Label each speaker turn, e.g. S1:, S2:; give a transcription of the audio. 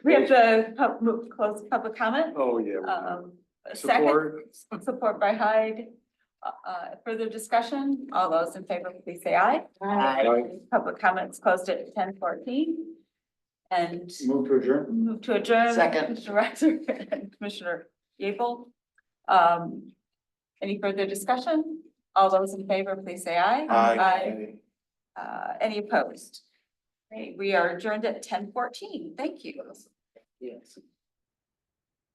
S1: We have to pub- move to close public comment.
S2: Oh, yeah. we do.
S1: Um, second,
S2: Support,
S1: support by Hyde. Uh, uh, further discussion, all those in favor, please say aye.
S2: Aye.
S1: Public comments closed at ten fourteen. And
S2: move to adjourn.
S1: move to adjourn.
S3: Second.
S1: Commissioner Reiser and Commissioner Gable. Um, any further discussion? All those in favor, please say aye. Aye. Uh, any opposed? Great, we are adjourned at ten fourteen. Thank you.
S3: Yes.